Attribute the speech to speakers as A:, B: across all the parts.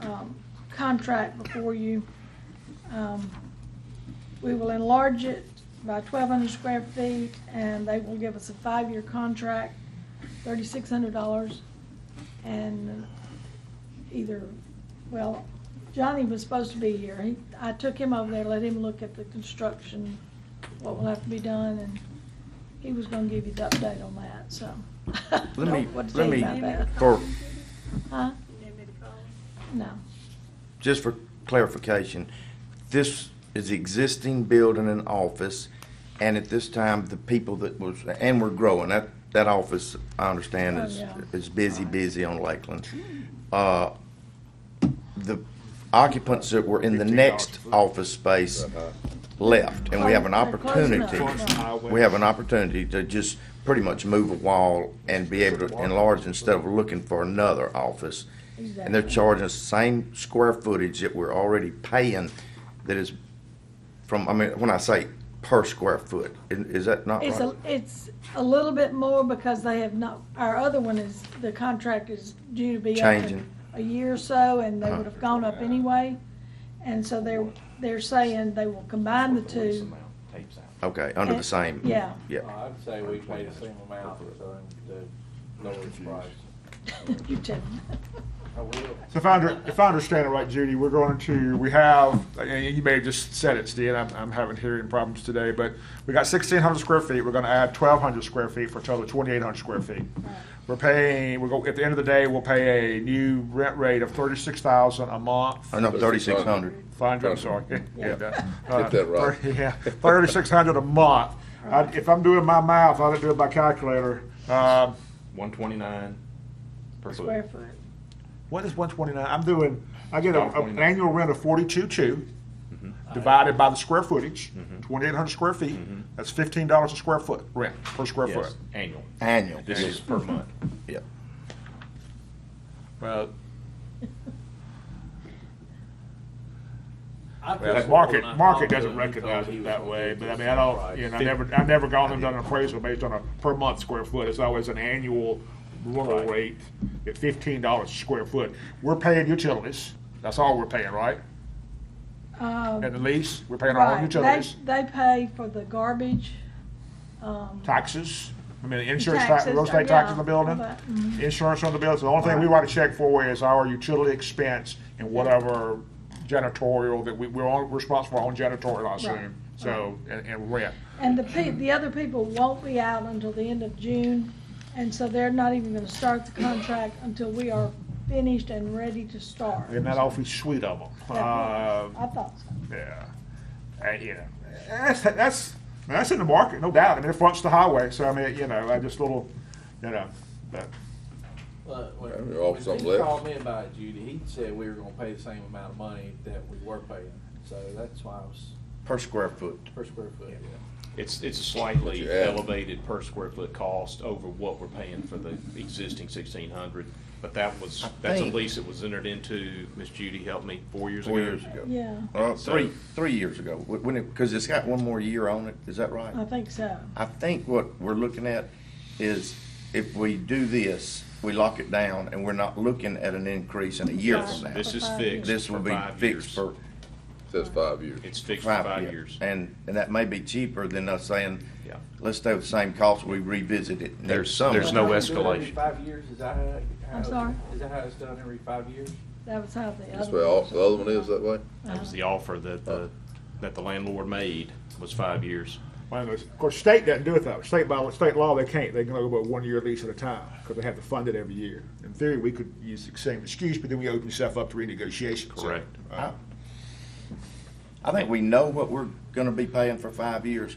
A: um, contract before you. Um, We will enlarge it by twelve hundred square feet, and they will give us a five-year contract, thirty-six hundred dollars. And uh, either, well, Johnny was supposed to be here. He, I took him over there, let him look at the construction, what will have to be done, and he was gonna give you the update on that, so.
B: Let me,
A: What to tell
B: let
A: you
B: me,
A: about that.
B: for,
A: Huh? No,
B: just for clarification, this is existing building and office, and at this time, the people that was, and we're growing, that, that office, I understand,
A: Oh,
B: is,
A: yeah. Hmm.
B: is busy, busy on Lakeland. Uh, The occupants that were in the next office space
C: Uh-huh.
B: left, and we have an
A: They're closing up.
B: opportunity. We have an opportunity to just pretty much move a wall and be able to enlarge instead of looking for another office. And they're
A: Exactly.
B: charging us the same square footage that we're already paying that is from, I mean, when I say per square foot, i- is that not
A: it's a,
B: right?
A: it's a little bit more because they have not, our other one is, the contract is due to be up in
B: Changing.
A: a year or so, and they
B: Uh-huh.
A: would have gone up anyway. And so they're, they're saying they will combine the two.
B: Okay, under the
A: it-
B: same.
A: Eh, yeah.
B: Yeah,
D: I'd say we paid a single amount for the lower price.
A: You tell them.
D: I will.
C: So if I, under, if I understand it right, Judy, we're going to, we have, and you may have just said it, Steve, I'm, I'm having hearing problems today, but we got sixteen hundred square feet, we're gonna add twelve hundred square feet for a total of twenty-eight hundred square feet. We're paying, we're go, at the end of the day, we'll pay a new rent rate of thirty-six thousand a month.
B: oh, no, thirty-six hundred.
C: Five hundred, I'm sorry. Yeah, that- uh,
E: that right.
C: thirty- Yeah, thirty-six hundred a month. I, if I'm doing my math, I didn't do it by calculator. Um,
F: One twenty-nine per
A: Square
F: foot.
A: foot.
C: What is one twenty nine? I'm doing. I get a, a- an
F: 129.
C: annual rent of forty two two, divided by the square footage, eight hundred square feet. That's fifteen dollars a square foot Mm-hmm. rent per square
F: Yes,
C: foot.
F: annual.
B: Annual.
F: This is per month.
B: Yeah.
F: Well,
C: Well, market market doesn't recognize it that way, but I mean I don't. You know, I never I never gone and done an appraisal based on a per month square foot. It's always an annual rental rate at fifteen dollars a square foot. We're paying utilities. That's all we're paying, right?
A: Um,
C: And the lease, we're paying our own
A: Right, they,
C: utilities,
A: they pay for the garbage, um.
C: taxes. I mean, insurance, tax,
A: Taxes,
C: real estate
A: yeah,
C: taxes on the building.
A: all that, mhm.
C: insurance on the bills, the only thing we write a check for is our utility expense and whatever janitorial that we, we're all responsible for our own janitorial, I
A: Right.
C: assume, so, and, and rent.
A: And the pe, the other people won't be out until the end of June, and so they're not even gonna start the contract until we are finished and ready to start.
C: Isn't that awfully sweet of them? Uh,
A: I thought so.
C: yeah, and, you know, that's, that's, that's in the market, no doubt, I mean, it fronts the highway, so I mean, you know, I just little, you know, but.
D: Look, when,
E: Well, off
D: when
E: something
D: he
E: left.
D: called me about it, Judy, he said we were gonna pay the same amount of money that we were paying, so that's why I was
B: Per square foot.
D: per square foot. yeah.
F: it's, it's a slightly
E: What you add.
F: elevated per square foot cost over what we're paying for the existing sixteen hundred. But that was,
B: I
F: that's a
B: think-
F: lease that was entered into, Miss Judy helped me, four years ago.
B: Four years ago.
A: Yeah,
B: Uh,
F: So-
B: three, three years ago, Wh- when it, because it's got one more year on it, is that right?
A: I think so.
B: I think what we're looking at is if we do this, we lock it down and we're not looking at an increase in a year
A: Yes,
B: from now.
F: This is
A: For five years.
F: fixed.
B: This will
F: for
B: be
F: five
B: fixed
F: years.
B: for
E: Says five years.
F: It's fixed for
B: five
F: five
B: years.
F: years.
B: And, and that may be cheaper than us saying,
F: Yeah.
B: let's stay with the same cost, we revisit it next
F: There's-
B: summer.
F: there's no
D: Do it every
F: escalation.
D: Five years, is that how?
A: I'm sorry?
D: Is that how it's done every five years?
A: That was how the
E: That's
A: other.
E: where all, the other one is that way?
F: That was the offer that the, that the landlord made was five years.
C: Well, of course- of course, state doesn't do it though. State by state law, they can't. They can only go about one year lease at a time because they have to fund it every year. In theory, we could use the same excuse, but then we open yourself up to renegotiation. So,
F: Correct.
C: uh,
B: I think we know what we're gonna be paying for five years.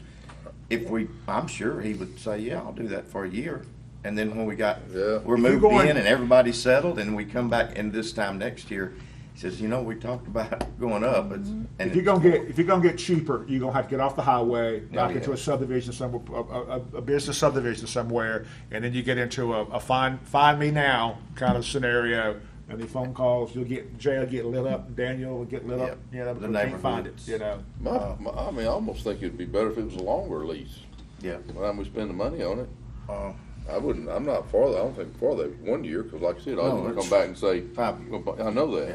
B: If we, I'm sure he would say, yeah, I'll do that for a year. And then when we got,
E: Yeah.
B: we're
C: you're
B: moved
C: going-
B: in and everybody's settled and we come back and this time next year, he says, you know, we talked about going up. it's- and
C: If you're gonna get, if you're gonna get cheaper, you're gonna have to get off the highway,
B: Oh,
C: back
B: yeah.
C: into a subdivision somewhere, a, a, a business subdivision somewhere, and then you get into a, a find, find me now kind of scenario. And the phone calls, you'll get, Jay'll get lit up, Daniel will get lit up,
B: Yeah.
C: you know,
B: The
C: but we can't find it,
B: neighborhoods.
C: you know.
E: My, my, I mean, I almost think it'd be better if it was a longer lease.
B: Yeah.
E: By the time we spend the money on it,
B: Uh,
E: I wouldn't, I'm not for that, I don't think for that, one year, cause like I said, I
B: No,
E: was gonna
B: it's
E: come back and say.
B: five years.
E: Well, I know that.